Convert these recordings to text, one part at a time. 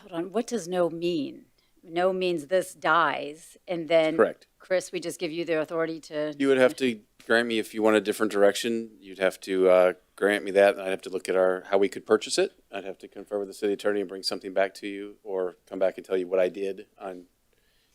hold on, what does no mean? No means this dies, and then. Correct. Chris, we just give you the authority to. You would have to grant me if you want a different direction. You'd have to uh, grant me that, and I'd have to look at our how we could purchase it. I'd have to confer with the city attorney and bring something back to you, or come back and tell you what I did on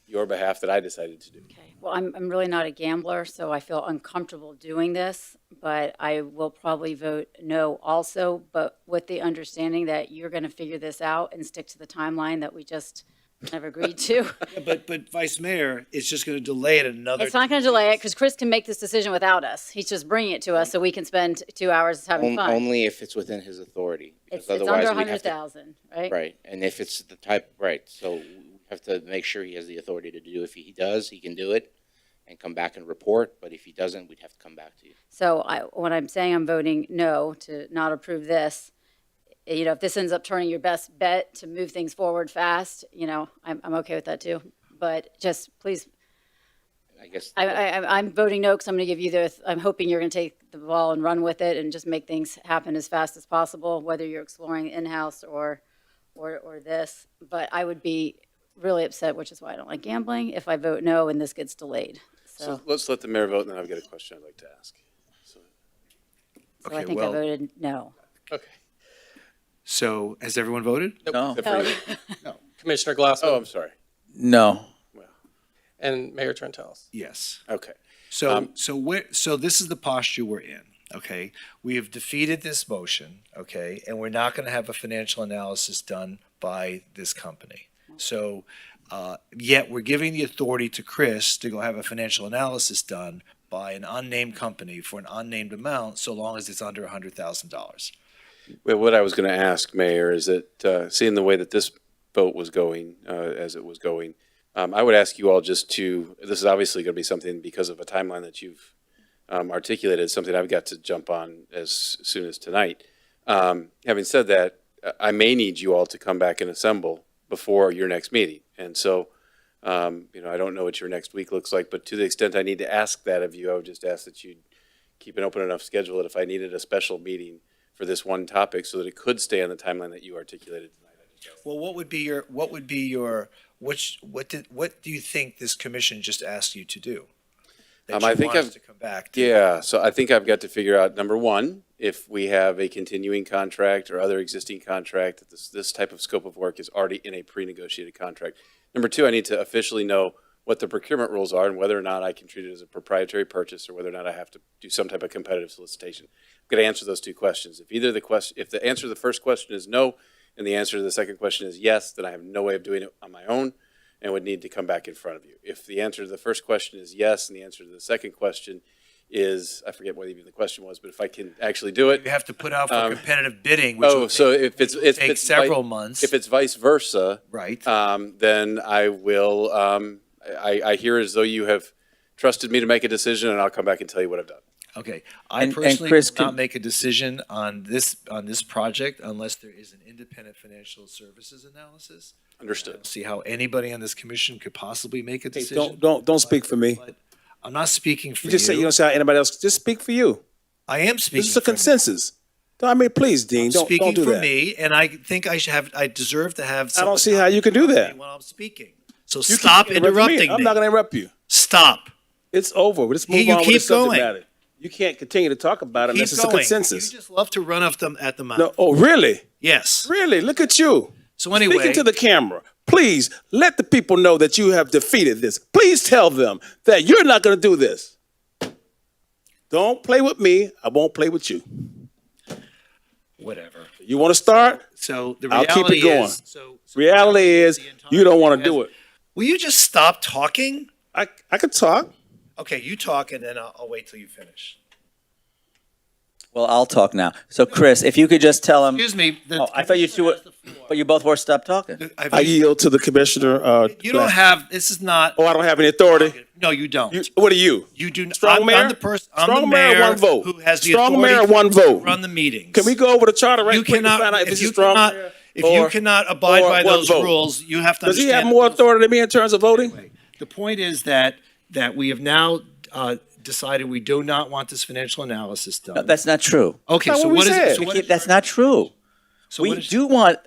your behalf that I decided to do. Okay. Well, I'm, I'm really not a gambler, so I feel uncomfortable doing this, but I will probably vote no also, but with the understanding that you're going to figure this out and stick to the timeline that we just have agreed to. But, but Vice Mayor, it's just going to delay it another. It's not going to delay it because Chris can make this decision without us. He's just bringing it to us so we can spend two hours having On- fun. Only if it's within his authority. It's, because it's under otherwise a we'd have hundred to- thousand, right? Right, and if it's the type, right, so we have to make sure he has the authority to do. If he does, he can do it and come back and report, but if he doesn't, we'd have to come back to you. So I, when I'm saying I'm voting no to not approve this, you know, if this ends up turning your best bet to move things forward fast, you know, I'm, I'm okay with that too. But just please, I guess, I, I, I'm- I'm voting no because I'm going to give you the, I'm hoping you're going to take the ball and run with it and just make things happen as fast as possible, whether you're exploring in-house or, or, or this. But I would be really upset, which is why I don't like gambling, if I vote no and this gets delayed. So, So let's let the mayor vote, and then I've got a question I'd like to ask. So, so I Okay, think I well- voted no. okay. So has everyone voted? No. Except Oh. for you. Commissioner Oh, Glassman I'm sorry. No. Well, and Mayor Trentalis. Yes. okay. So, Um, so where, so this is the posture we're in. Okay, we have defeated this motion. Okay, and we're not going to have a financial analysis done by this company. So, uh, yet we're giving the authority to Chris to go have a financial analysis done by an unnamed company for an unnamed amount, so long as it's under a hundred thousand dollars. Well, what I was going to ask, Mayor, is that uh, seeing the way that this vote was going, uh, as it was going, um, I would ask you all just to, this is obviously going to be something because of a timeline that you've um, articulated, something I've got to jump on as soon as tonight. Um, having said that, I- I may need you all to come back and assemble before your next meeting. And so, um, you know, I don't know what your next week looks like, but to the extent I need to ask that of you, I would just ask that you keep an open enough schedule that if I needed a special meeting for this one topic so that it could stay on the timeline that you articulated tonight. Well, what would be your, what would be your, which, what did, what do you think this commission just asked you to do? That Um, I you think want us I've- To come back to? Yeah, so I think I've got to figure out, number one, if we have a continuing contract or other existing contract, that this, this type of scope of work is already in a pre-negotiated contract. Number two, I need to officially know what the procurement rules are and whether or not I can treat it as a proprietary purchase or whether or not I have to do some type of competitive solicitation. I'm going to answer those two questions. If either the question, if the answer to the first question is no, and the answer to the second question is yes, then I have no way of doing it on my own and would need to come back in front of you. If the answer to the first question is yes, and the answer to the second question is, I forget what even the question was, but if I can actually do it. You have to put out for Um, competitive bidding, which Oh, will so take, if it's, will if take it's. vi- several months. If it's vice versa. Right. Um, then I will, um, I, I hear as though you have trusted me to make a decision and I'll come back and tell you what I've done. Okay, I And- and personally Chris will not can- make a decision on this, on this project unless there is an independent financial services analysis. I don't Understood. See how anybody on this commission could possibly make a Hey, decision. don't, don't, don't speak for me. But I'm not speaking for You just say you you. don't say anybody else. Just speak for you. I am speaking. This is a for me. consensus. I mean, please, Dean, don't, speaking don't do for that. me, and I think I should have, I deserve to have. I someone don't see how you could do that. interrupt me When I'm speaking, so You keep stop interrupting me. I'm not going to interrupt you. Stop. It's over. Let's Here move you on with keep the subject going. matter. You can't continue to talk about it Keep unless it's a going. consensus. You just love to run off them at the mouth. No, oh, really? Yes. Really? Look at you. So anyway, Speaking to the camera, please let the people know that you have defeated this. Please tell them that you're not going to do this. Don't play with me. I won't play with you. whatever. You want to start? So the I'll reality keep it going. is, so, so Reality is, you don't want to do it. Will you just stop talking? I, I could talk. Okay, you talk, and then I'll, I'll wait till you finish. Well, I'll talk now. So, Chris, if you could just tell him. Excuse me. the Uh, Oh, I thought you two were, but you both were stopped talking. I've- I yield to the commissioner. Uh, you don't have. This is not. Oh, I don't have any authority. No, you don't. You, what are you? You do not. Strong I'm, mayor? I'm the person. I'm the Strong mayor, mayor, one vote. Who has the Strong authority mayor, one to vote. Run the meetings. Can we go over the charter right You quick cannot. to find out if, if this you is strong? cannot, if you or- cannot abide or by one those vote? rules, you have to. Does he understand have the more rules. authority than me in terms of voting? The point is that that we have now uh, decided we do not want this financial analysis done. That's not true. okay. not So what we what is said. So We what Keep- is- That's not true. so what We is- do want